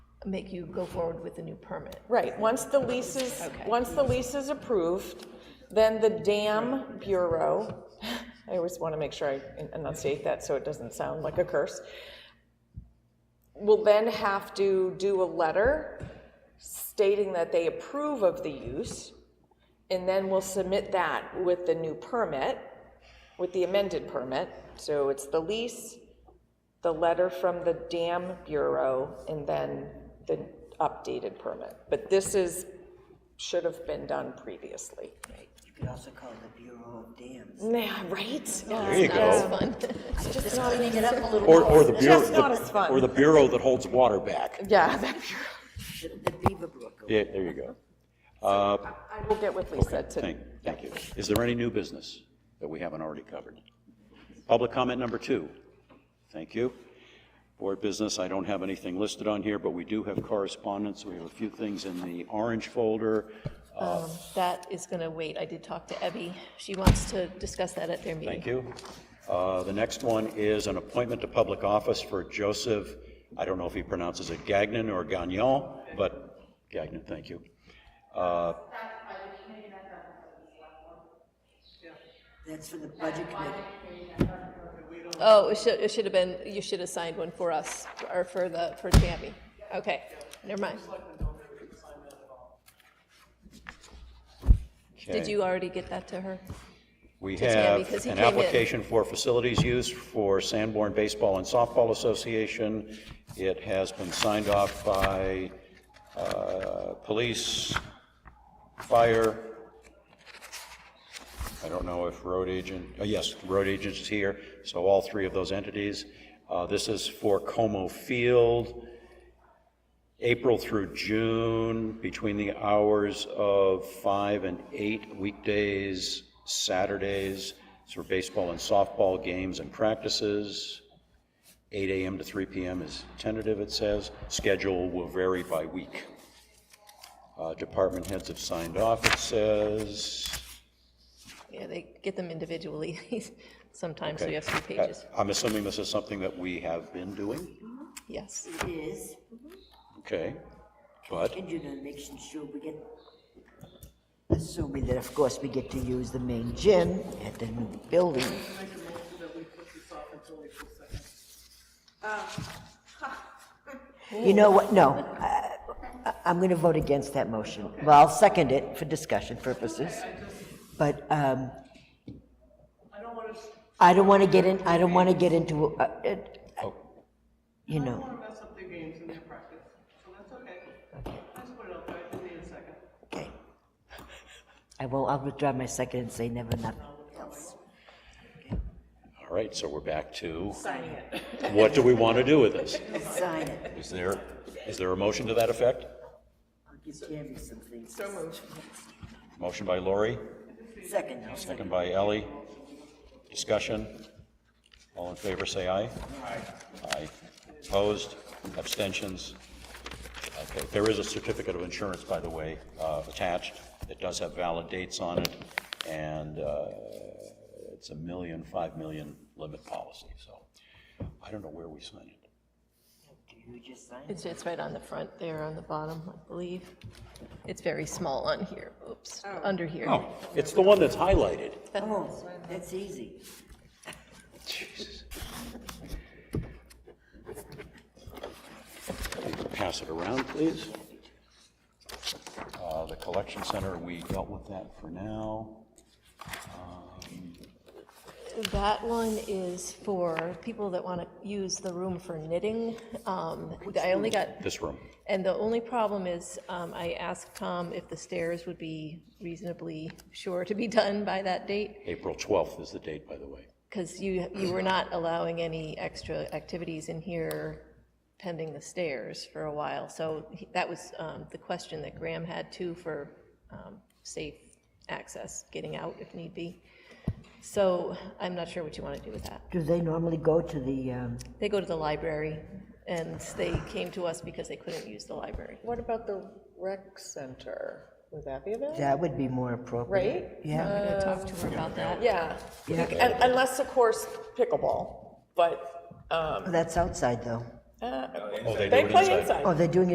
make you go forward with a new permit. Right, once the lease is, once the lease is approved, then the dam bureau, I always want to make sure I enunciate that so it doesn't sound like a curse, will then have to do a letter stating that they approve of the use, and then we'll submit that with the new permit, with the amended permit. So it's the lease, the letter from the dam bureau and then the updated permit. But this is, should have been done previously. You could also call it the Bureau of Dams. Nah, right? There you go. Just cleaning it up a little. Or, or the It's bureau, just not as the- fun. or the bureau that holds water back. Yeah, that bureau. The Beaverbrook. Yeah, there you go. Uh, I will get with Lisa to, Thank, thank you. Is there any new business that we haven't already covered? Public comment number two. Thank you. Board business, I don't have anything listed on here, but we do have correspondence. We have a few things in the orange folder. That is going to wait. I did talk to Ebby. She wants to discuss that at their meeting. Thank you. Uh, The next one is an appointment to public office for Joseph, I don't know if he pronounces it Gagnon or Gagnon, but Gagnon, thank you. Uh, That's for the Budget Committee. Oh, it should, it should have been, you should have signed one for us, or for the, for Tammy. Okay, never mind. Did okay. you already get that to her? We Tammy, have 'cause he an came in. application for facilities use for Sanborn Baseball and Softball Association. It has been signed off by uh, police, fire, I don't know if road agent, oh, yes, road agent is here, so all three of those entities. Uh, This is for Como Field, April through June, between the hours of five and eight weekdays, Saturdays, it's for baseball and softball games and practices. Eight AM to three PM is tentative, it says. Schedule will vary by week. Uh, Department heads have signed off, it says. Yeah, they get them individually sometimes, so you have Okay. three pages. Uh, I'm assuming this is something that we have been doing, Yes. It is, okay? But, and you know, making sure we get, assuming that of course we get to use the main gym at the new building. You know what, no, I- I- I'm going to vote against that motion. Well, I'll second it for discussion purposes, but um, I don't want to get in, I don't want to get into, uh, it- oh, you know. That's up their games and their practice, so that's okay. I just put it out there, I just need a second. Okay. I will, I'll withdraw my second and say never, nothing else. all right, so we're back to. What do we want to do with this? Sign it. Is there, is there a motion to that effect? I'll give Tammy some things. Motion by Lori, Second, I'll second second. by Ellie. Discussion? All in favor, say aye. Aye. Aye. Opposed? Abstentions? Okay, there is a certificate of insurance, by the way, uh, attached. It does have valid dates on it, and uh, it's a million, five million limit policy, so I don't know where we sign it. Do you just sign it? It's, it's right on the front there, on the bottom, I believe. It's very small on here, oops, under here. Oh, it's the one that's highlighted. Oh, that's easy. Pass it around, please. Uh, The collection center, we dealt with that for now. That one is for people that want to use the room for knitting. Um, I only got This room. And the only problem is, um, I asked Tom if the stairs would be reasonably sure to be done by that date, April 12th is the date, by the way. because you, you were not allowing any extra activities in here pending the stairs for a while. So he- that was, um, the question that Graham had too for, um, safe access, getting out if need be. So I'm not sure what you want to do with that. Do they normally go to the, um, They go to the library, and they came to us because they couldn't use the library. what about the rec center? Would that be available? that would be more appropriate. Right? Yeah, I'm going to talk to her about that. Yeah, Yeah. Un- unless, of course, pickleball, but, um, that's outside though. uh, Oh, they play inside. Oh, they're doing